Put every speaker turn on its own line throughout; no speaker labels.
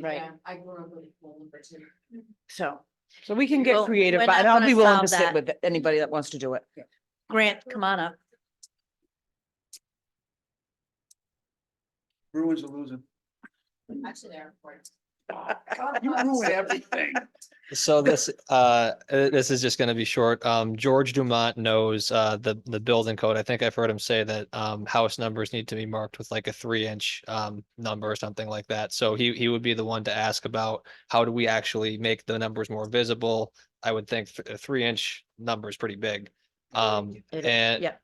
Right.
Yeah, I grew up with a pool number two.
So, so we can get
Well,
creative,
we're
but
not
I'll
gonna
be willing
solve
to sit
that.
with anybody that wants to do it.
Grant, come on up.
Bruins are losing.
Actually, they're important.
You ruin everything.
So this, uh, uh, this is just gonna be short. Um, George Dumont knows, uh, the, the building code. I think I've heard him say that, um, house numbers need to be marked with like a three inch, um, number or something like that. So he, he would be the one to ask about how do we actually make the numbers more visible? I would think th- a three inch number is pretty big. Um,
It is,
and.
yep.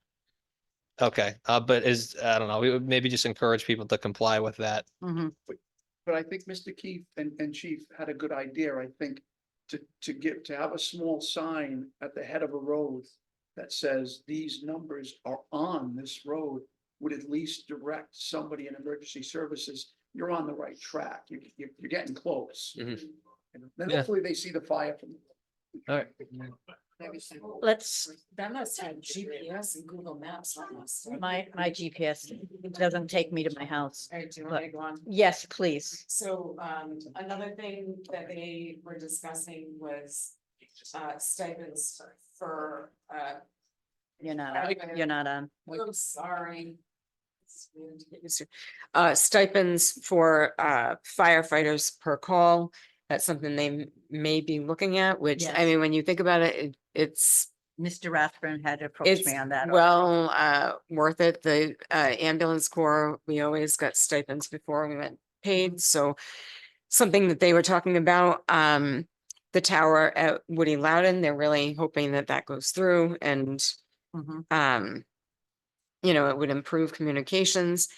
Okay, uh, but is, I don't know, we would maybe just encourage people to comply with that.
Mhm.
But I think Mr. Keith and, and Chief had a good idea, I think, to, to give, to have a small sign at the head of a road that says these numbers are on this road would at least direct somebody in emergency services, you're on the right track, you, you, you're getting close.
Mhm.
And Then
Yeah.
hopefully they see the fire from.
All right.
Let's,
That must have GPS and Google Maps on us.
my, my GPS doesn't take me to my house.
All right, do you want me to go on?
Yes, please.
So um another thing that they were discussing was uh stipends for uh,
You're not, on- you're not um, on.
I'm sorry. um, It's weird to get used to. Uh stipends for uh firefighters per call. That's something they m- may be looking at, which I
Yes.
mean, when you think about it, it- it's
Mr. Rathburn had approached
It's
me on that.
well, uh, worth it. The, uh, ambulance corps, we always got stipends before we went paid, so. Something that they were talking about, um, the tower at Woody Loudon, they're really hoping that that goes through and,
Mm-hmm.
Mhm.
um. You know, it would improve communications.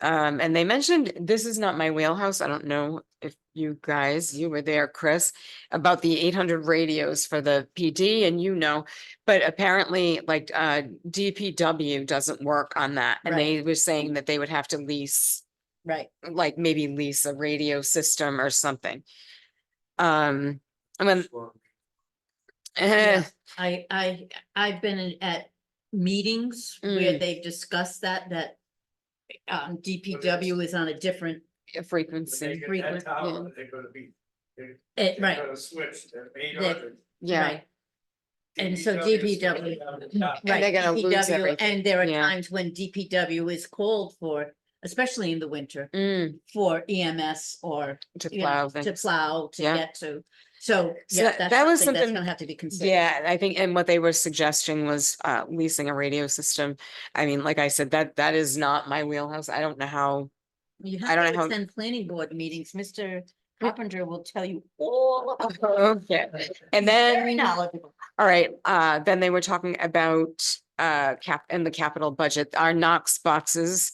Um, and they mentioned, this is not my wheelhouse. I don't know if you guys, you were there, Chris. About the eight hundred radios for the PD and you know, but apparently like uh DPW doesn't work on that. And
Right.
they were saying that they would have to lease,
Right.
like maybe lease a radio system or something. Um, I mean. eh,
Yeah. I, I, I've been in- at meetings where
Mm.
they've discussed that, that um, DPW is on a different,
a frequency,
get that frequent,
tower,
they're gonna be,
eh, right,
switch, they're
That-
yeah.
right. And so DPW. right,
they're gonna lose
DPW,
everything.
And there are
Yeah.
times when DPW is called for, especially in the winter,
Mm,
for EMS or
to
you know,
plow
to
things.
plow, to
Yeah.
get to. So,
So
yeah,
that-
that's
that was
something that's
something-
gonna have to be considered.
Yeah, I think, and what they were suggesting was uh leasing a radio system. I mean, like I said, that that is not my wheelhouse. I don't know how.
You
I don't
have
know
to
how- Hmm?
attend planning board meetings. Mr. Carpenter will tell you all. about it.
Okay, and
Very
then,
knowledgeable.
all right, uh, then they were talking about uh cap and the capital budget. Our Knox boxes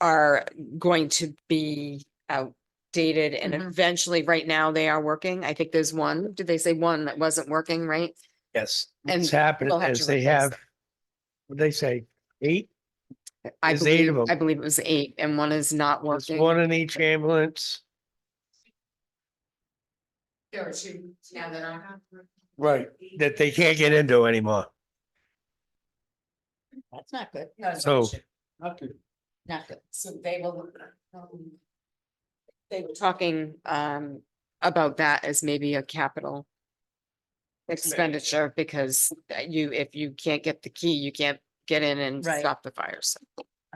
are going to be outdated and
Mm-hmm.
Mhm.
eventually, right now, they are working. I think there's one, did they say one that wasn't working, right?
Yes,
And
what's happened
we'll have to
is they
replace
have,
them.
what they say, eight,
I
There's eight of
believe, I
them.
believe it was eight and one is not
there's
working.
one in each ambulance.
There are two, yeah, they're not.
Right. That they can't get into anymore,
That's not good,
so.
not good.
So they will. um, They were talking um about that as maybe a capital. Expenditure, because uh, you, if you can't get the key, you can't get in and
Right.
stop the fires.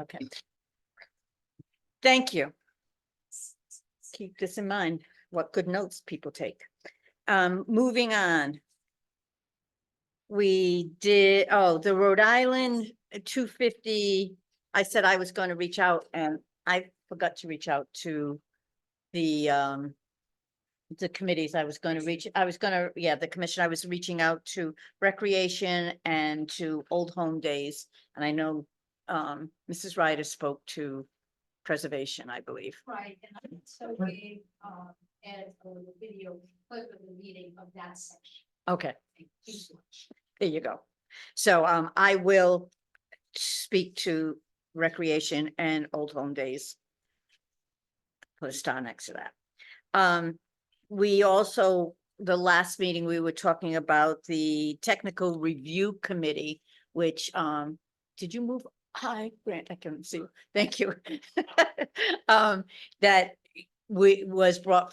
Okay. Thank you. Keep this in mind, what good notes people take. Um, moving on. We did, oh, the Rhode Island two fifty, I said I was gonna reach out and I forgot to reach out to the um. The committees I was gonna reach, I was gonna, yeah, the commission, I was reaching out to recreation and to old home days. And I know um, Mrs. Ryder spoke to preservation, I believe.
Right, and I also gave, um, Ed a little video clip of the meeting of that section.
Okay,
Thank you so much.
there you go. So, um, I will speak to recreation and old home days. Put a star next to that. Um, we also, the last meeting, we were talking about the technical review committee, which, um, did you move? Hi, Grant, I can see. you. Thank you. Um, that we, was brought